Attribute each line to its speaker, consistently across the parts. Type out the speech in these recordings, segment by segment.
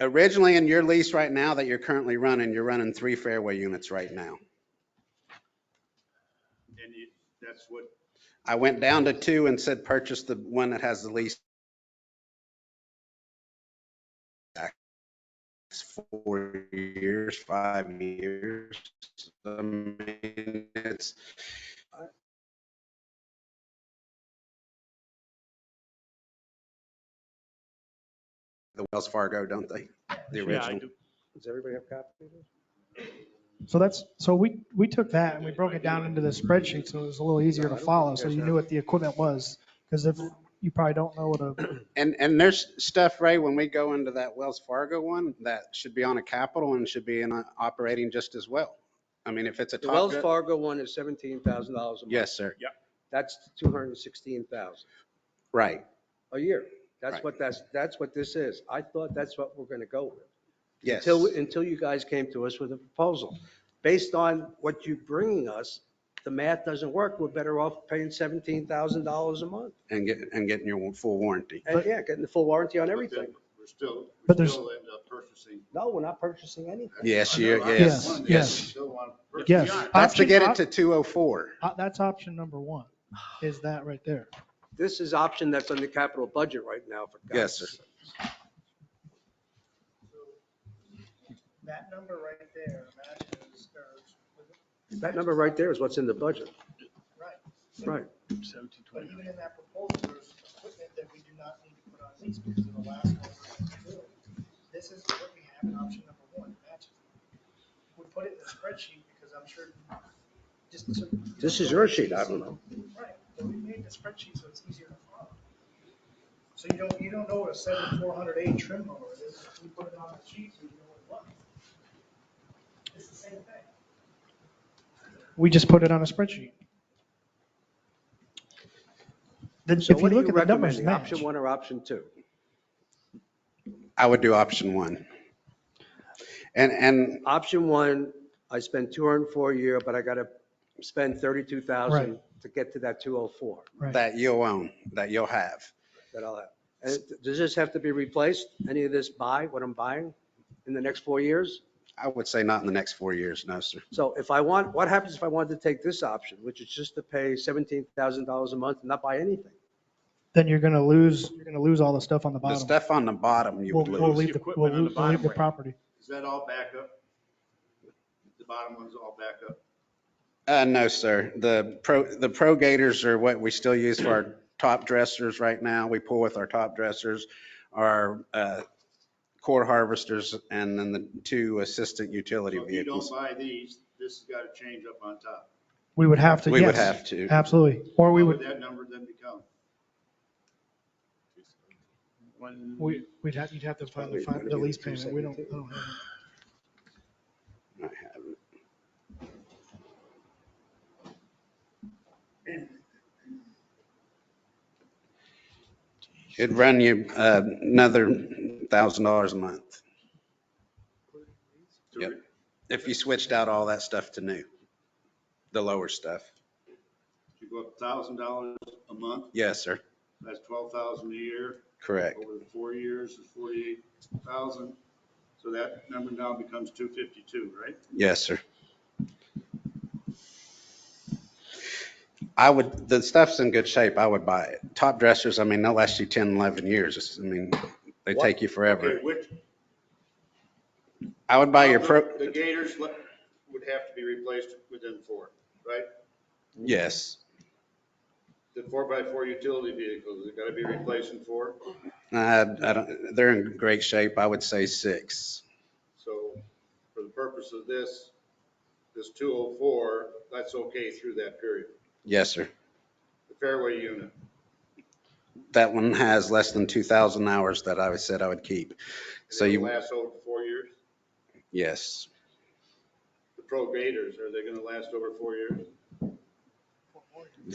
Speaker 1: Originally, in your lease right now that you're currently running, you're running three fairway units right now.
Speaker 2: And it, that's what,
Speaker 1: I went down to two and said, purchase the one that has the least. It's Four years, five years. I mean, It's, the Wells Fargo, don't they? The
Speaker 2: yeah, I
Speaker 1: original.
Speaker 2: do,
Speaker 3: Does everybody have copies?
Speaker 4: So that's, so we, we took that and we broke it down into the spreadsheet, so it was a little easier to follow, so you knew what the equipment was. Because if, you probably don't know what a,
Speaker 1: And, and there's stuff, Ray, when we go into that Wells Fargo one, that should be on a capital and should be in a operating just as well. I mean, if it's a
Speaker 3: The
Speaker 1: top.
Speaker 3: Wells
Speaker 1: gun-
Speaker 3: Fargo one is seventeen thousand dollars a month.
Speaker 1: Yes, sir.
Speaker 3: That's two hundred and sixteen thousand
Speaker 1: Right.
Speaker 3: a year. That's
Speaker 1: Right.
Speaker 3: what that's, that's what this is. I thought that's what we're gonna go with.
Speaker 1: Yes.
Speaker 3: Until, until you guys came to us with a proposal. Based on what you bringing us, the math doesn't work. We're better off paying seventeen thousand dollars a month.
Speaker 1: And get, and getting your full warranty.
Speaker 3: And yeah, getting the full warranty on
Speaker 2: but
Speaker 3: everything.
Speaker 2: then We're still,
Speaker 4: But
Speaker 2: we
Speaker 4: there's-
Speaker 2: still end up purchasing.
Speaker 3: No, we're not purchasing anything.
Speaker 1: Yes,
Speaker 2: I know,
Speaker 1: you-
Speaker 2: I
Speaker 4: yes,
Speaker 2: understand.
Speaker 4: yes.
Speaker 2: We still want to purchase.
Speaker 4: yes.
Speaker 2: Yeah,
Speaker 1: Have to
Speaker 4: Option-
Speaker 1: get oh
Speaker 4: op-
Speaker 1: it to 204.
Speaker 4: uh, That's option number one, is that right there.
Speaker 3: This is option that's on the capital budget right now for. God's
Speaker 1: Yes, sir.
Speaker 3: sake.
Speaker 4: That number right there matches,
Speaker 3: That number right there is what's in the budget.
Speaker 4: right,
Speaker 3: Right.
Speaker 4: but even in that proposal, there's equipment that we do not need to put on lease because of the last one. This is what we have in option number one, matches. We put it in the spreadsheet because I'm sure, just to.
Speaker 3: This is your sheet, I don't know.
Speaker 4: Right, but we made the spreadsheet so it's easier to follow. So you don't, you don't know what a seven four hundred eight trim mower is, we put it on the sheet, so you know what it was. It's the same thing. We just put it on a spreadsheet. Then if
Speaker 3: So
Speaker 4: you
Speaker 3: what are
Speaker 4: look
Speaker 3: you
Speaker 4: at the numbers
Speaker 3: recommending,
Speaker 4: match,
Speaker 3: option one or option two?
Speaker 1: I would do option one. And, and
Speaker 3: Option one, I spent two hundred and four a year, but I gotta spend thirty-two thousand to get to that two oh four
Speaker 4: right,
Speaker 1: that you'll own, that you'll have.
Speaker 3: that I'll have. And does this have to be replaced? Any of this buy, what I'm buying in the next four years?
Speaker 1: I would say not in the next four years, no, sir.
Speaker 3: So if I want, what happens if I wanted to take this option, which is just to pay seventeen thousand dollars a month and not buy anything?
Speaker 4: then you're gonna lose, you're gonna lose all the stuff on the
Speaker 1: The
Speaker 4: bottom.
Speaker 1: stuff on the bottom you
Speaker 4: We'll,
Speaker 1: would
Speaker 4: we'll
Speaker 1: lose.
Speaker 4: leave, the-
Speaker 2: Equipment
Speaker 4: we'll
Speaker 2: on the
Speaker 4: lose- we'll leave the
Speaker 2: bottom.
Speaker 4: property.
Speaker 2: Is that all backup? The bottom one's all backup.
Speaker 1: Uh, no, sir. The pro, the pro gators are what we still use for our top dressers right now. We pull with our top dressers, our, uh, core harvesters and then the two assistant utility
Speaker 2: So if you don't
Speaker 1: vehicles.
Speaker 2: buy these, this has got to change up on top.
Speaker 4: We would have to,
Speaker 1: We would
Speaker 4: yes,
Speaker 1: have to.
Speaker 4: absolutely, or we
Speaker 2: What
Speaker 4: would,
Speaker 2: That number then become.
Speaker 4: we, we'd have, you'd have to find the,
Speaker 1: probably
Speaker 4: fin-
Speaker 1: gonna
Speaker 4: the
Speaker 1: be
Speaker 4: lease
Speaker 1: the
Speaker 4: payment, we don't, I don't
Speaker 1: I
Speaker 4: have.
Speaker 1: have it. It'd run you uh, another thousand dollars a month
Speaker 2: to
Speaker 1: Yep.
Speaker 2: re-
Speaker 1: if you switched out all that stuff to new, the lower stuff.
Speaker 2: To go up thousand dollars a month,
Speaker 1: Yes, sir.
Speaker 2: that's twelve thousand a year.
Speaker 1: Correct.
Speaker 2: Over the four years is forty-eight thousand. So that number now becomes two fifty-two, right?
Speaker 1: Yes, sir. I would, the stuff's in good shape. I would buy it. Top dressers, I mean, they'll last you 10, 11 years. It's- I mean, they
Speaker 3: What?
Speaker 1: take you forever.
Speaker 2: Okay, Uh-huh. Which,
Speaker 1: I would buy your pro,
Speaker 2: Uh, The gators le- would have to be replaced within four, right?
Speaker 1: yes.
Speaker 2: The four by four utility vehicles, they've got to be replaced in four.
Speaker 1: I, I don't, they're in great shape. I would say six.
Speaker 2: So for the purpose of this, this two oh four, that's okay through that period.
Speaker 1: Yes, sir.
Speaker 2: The fairway unit,
Speaker 1: That one has less than 2,000 hours that I said I would keep. So
Speaker 2: they
Speaker 1: you,
Speaker 2: last over four years.
Speaker 1: yes.
Speaker 2: The pro gators, are they going to last over four years?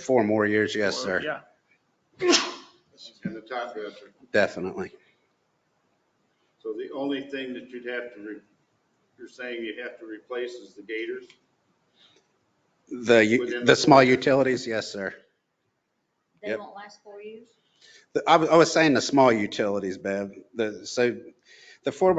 Speaker 1: Four more years, yes, sir.
Speaker 2: Yeah. And the top dresser.
Speaker 1: Definitely.
Speaker 2: So the only thing that you'd have to, re- you're saying you have to replace is the gators?
Speaker 1: The, u-
Speaker 2: Within-
Speaker 1: the small utilities, yes, sir.
Speaker 5: They
Speaker 1: Yep.
Speaker 5: won't last four years?
Speaker 1: The- I was, I was saying the small utilities, Bev. The, so the four by